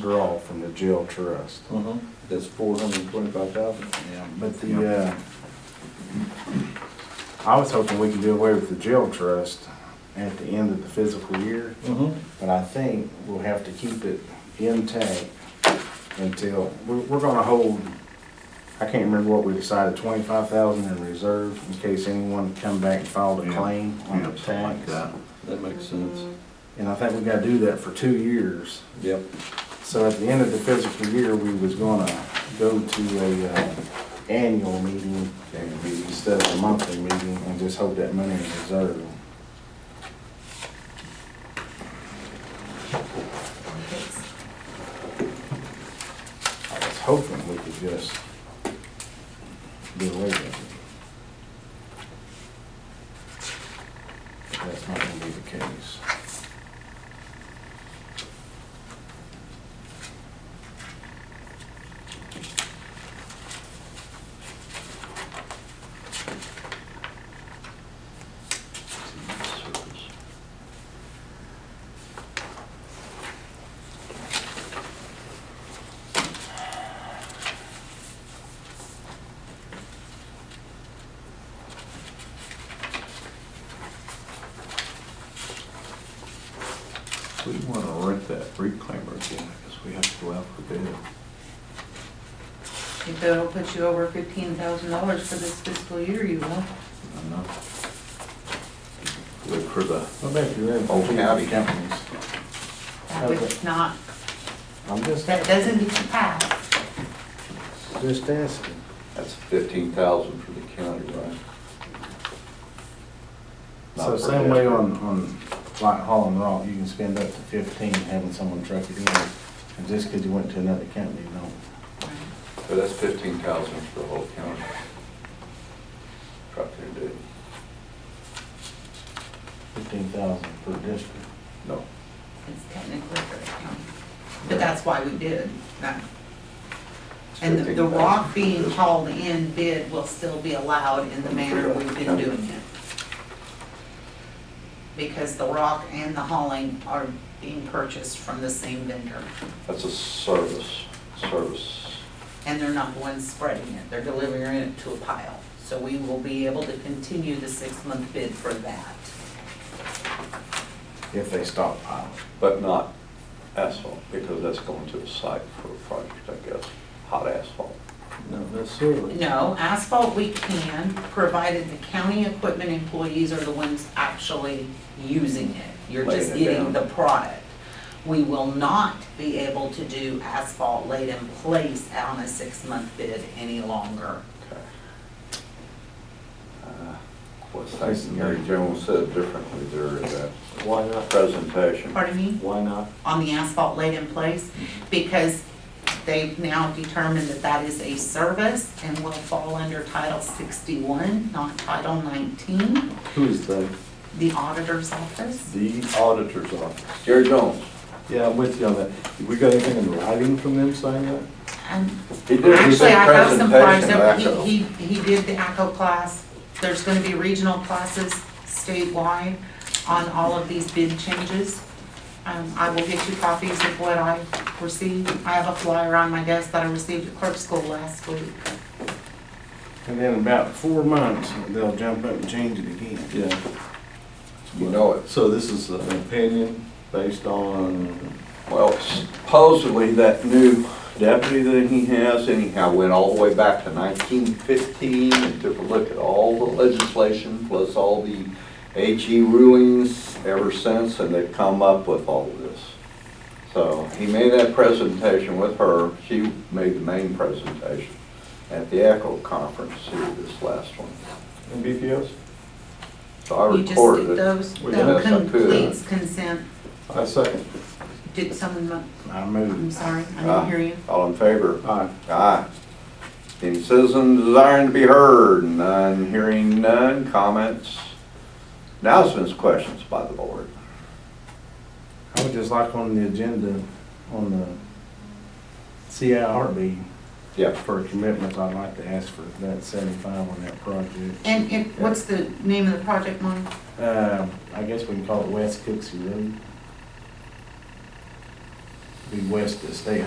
withdraw from the jail trust. Uh-huh, that's four hundred and twenty-five thousand? Yeah. But the, uh, I was hoping we could do away with the jail trust at the end of the fiscal year, Uh-huh, but I think we'll have to keep it intact until, we're, we're gonna hold, I can't remember what we decided, twenty-five thousand in reserve in case anyone come back and filed a Yeah, claim on the Yeah, something like tax. that. that makes sense. And I think we gotta do that for two years. Yep, So at the end of the fiscal year, we was gonna go to a, uh, annual meeting and be- instead of a monthly meeting and just hold that money in reserve. I was hoping we could just do away with it. But That's not gonna be the case. We wanna rent that reclaimer again, I guess we have to go out for bid. If that'll put you over fifteen thousand dollars for this fiscal year, you will. I know. Look for the, What about your other Old two howdy. companies? That would not, I'm just, that doesn't get you past. just asking. that's fifteen thousand for the county, right? So Not for same way debt. on, on like Hall and Rock, you can spend up to fifteen having someone truck it in. And just because you went to another company, you know. But that's fifteen thousand for the whole county. Drop there, dude. fifteen thousand per district. No. It's technically for the county. But that's why we did that. it's And the- the 15,000 rock for being this. hauled in bid will still be allowed in the manner we've been doing it. Because the rock and the hauling are being purchased from the same vendor. That's a service, service. and they're not the ones spreading it, they're delivering it to a pile. So we will be able to continue the six-month bid for that. If they stockpile. But not asphalt, because that's going to the site for a project, I guess, hot asphalt. not necessarily. No, asphalt we can, provided the county equipment employees are the ones actually using it. You're just Laying it getting the down. product. We will not be able to do asphalt laid in place on a six-month bid any longer. Okay. Uh, What's that, Mary Jones said differently there in that Why not? presentation. Pardon me? Why not? on the asphalt laid in place because they've now determined that that is a service and will fall under Title 61, not Title 19, Who is the? the auditor's office. The auditor's office. Jerry Jones, Yeah, I'm with you on that. We got anything in writing from them saying that? And he did a good actually, I have some flyers, presentation that back he, up. he he did the ACO class. There's going to be regional classes statewide on all of these bid changes. Um, I will get you copies of what I received. I have a flyer on my desk that I received at clerk school last week. And then about four months, they'll jump up and change it again. Yeah. You know it. So this is an opinion based on, Well, supposedly that new deputy that he has anyhow went all the way back to nineteen fifteen and took a look at all the legislation plus all the AG rulings ever since, and they've come up with all of this. So he made that presentation with her, she made the main presentation at the ECHO conference here this last one. in BPS? So I You just recorded it. did those, We did. that completes consent. I second. Did someone, mo- I I'm moved. sorry, I Ah. didn't hear you. All in favor? Aye. Aye. Any citizen desiring to be heard? None, hearing none, comments, announcements, questions by the board. I would just like on the agenda, on the CIRB. Yeah. For commitments, I'd like to ask for that seventy-five on that project. And, and what's the name of the project, Mom? Uh, I guess we can call it West Cooksey Road. be west that stay